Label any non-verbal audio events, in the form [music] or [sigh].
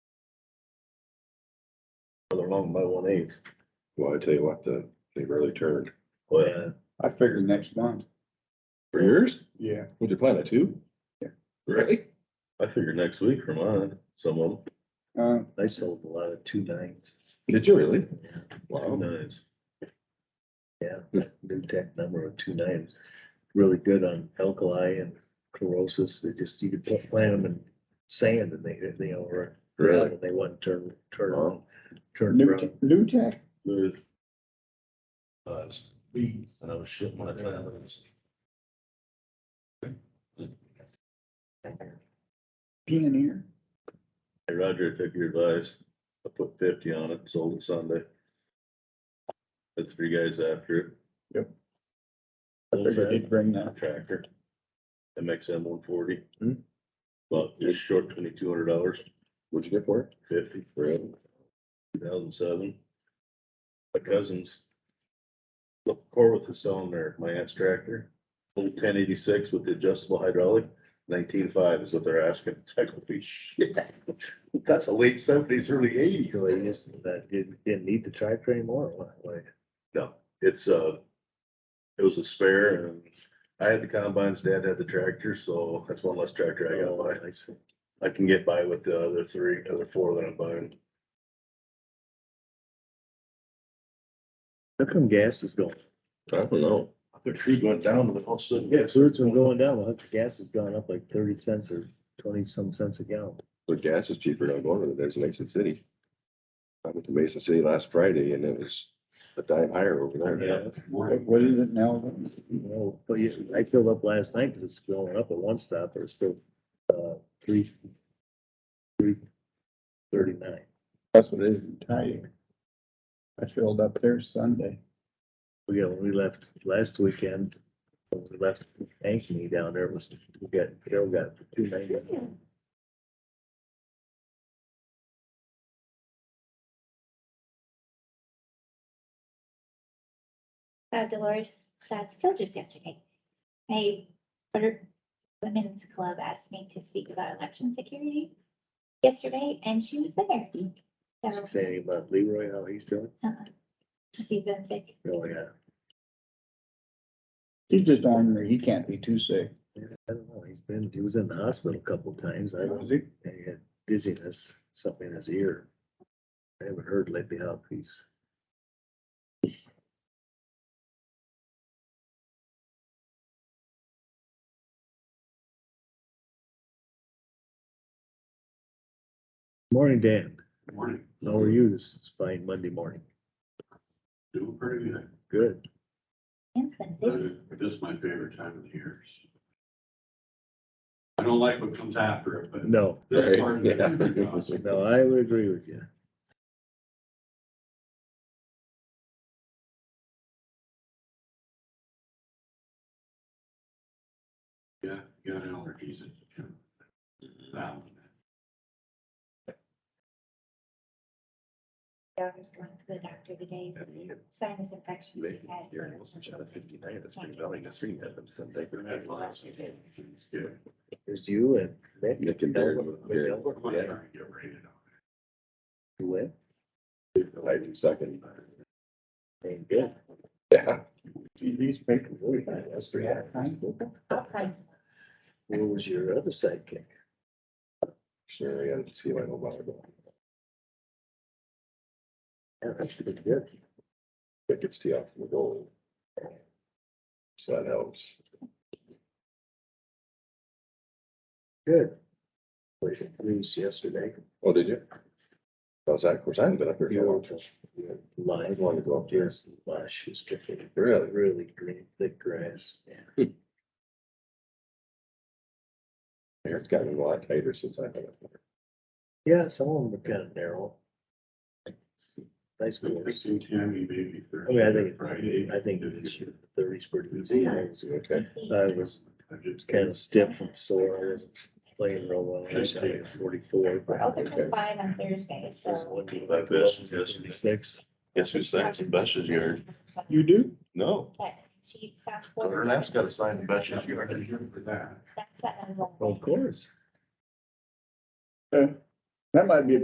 Another long by one eighth. Well, I tell you what, the, they barely turned. Well, I figured next month. For yours? Yeah. Would you plan it too? Yeah. Really? I figure next week for mine, some of them. Uh, I sold a lot of two nines. Did you really? Two Wow. nines. Yeah, that new tech number of two nines, really good on alkali and chlorosis, they just, you could put- plant them in sand and they, they over. Really? And they wouldn't turn, turn Wow. on, turn New, brown. New Tech, There's. Uh, bees, and I was shitting my plants. Pioneer, Hey, Roger, I took your advice. I put fifty on it, sold it Sunday. The three guys after it. Yep. I What was figured he'd that? bring that. Tractor. MXM one forty. Hmm. Well, just short twenty-two hundred dollars, What'd you get for it? fifty, Really? two thousand seven. My cousins. Look, Corwith is selling their, my aunt's tractor. Old ten eighty-six with the adjustable hydraulic, nineteen-five is what they're asking. [laughs] It's like, holy shit. That's a late seventies, early eighties. So they just, that didn't, didn't need the tractor anymore, like- like, No, it's uh it was a spare and I had the combines, dad had the tractor, so that's one less tractor I gotta I see. buy. I can get by with the other three, other four that I'm buying. How come gas is going? I don't know. The tree went down and then all of a sudden, Yeah, yes, so it's been going down, well, gas has gone up like thirty cents or twenty some cents a gallon. But gas is cheaper down Gorman than it is in Mason City. I went to Mason City last Friday and it was a dime higher over there. Yeah. What what is it now? You know, but you, I filled up last night because it's going up at one stop, or it's still, uh, three, three thirty-nine. That's what it is in Tyke. I filled up there Sunday. We got, when we left last weekend, when we left Ankeny down there, it was, we got, Carol got two ninety. uh, Dolores uh, Stilgers yesterday. A Better Women's Club asked me to speak about election security yesterday, and she was there. So, Saying about Leroy, how he's doing, uh, she's been sick. really, yeah. He's just on there, he can't be too sick. Yeah, I don't know, he's been, he was in the hospital a couple times, I don't, Was he? and he had dizziness, something in his ear. I haven't heard lately how he's, morning, Dan, morning, how are you this fine Monday morning? doing pretty good. Good, It's been Uh, sick. This is my favorite time of the year. I don't like what comes after it, but no, this part of Right, yeah. [laughs] it. no, I would agree with you. Yeah, you got allergies. it's, you know, Um, that one. Daughter's going to the doctor today, sinus infection. she had. I've had lots of allergies, yeah. There's you and Nick. Nick and Darren, yeah, I'm trying to get rated on You win, I do second. and good. Yeah. These papers, Really kind of us. All kinds of Where was your other sidekick? Sure, I gotta see if I know about it. Yeah, that's pretty good. That gets tea off the goal. So that helps. Good. Played the Blues yesterday, Oh, did you? How's that? Of course, I haven't been up here. You for a were. long time. I live, just wanted to go up there. just lush, it's kicking, Really? really green, thick grass. Here, it's gotten a lot tighter since I've been up there. Yeah, some of them are kind of narrow. Nice it. I course. think Tammy maybe I mean, Oh, I Thursday, think, Friday. I think this year, the thirties pretty busy, I was, Okay. I was I just- kind of stiff from sore, I wasn't playing real well, I was playing forty-four. We're open till five on Thursday, There's so. one team Like this, yes. Six. Guess who signs the bestest yard? You do? No, But She sounds. Ernest gotta sign the bestest You're yard. for that. That's that. Of course. Uh, That might be a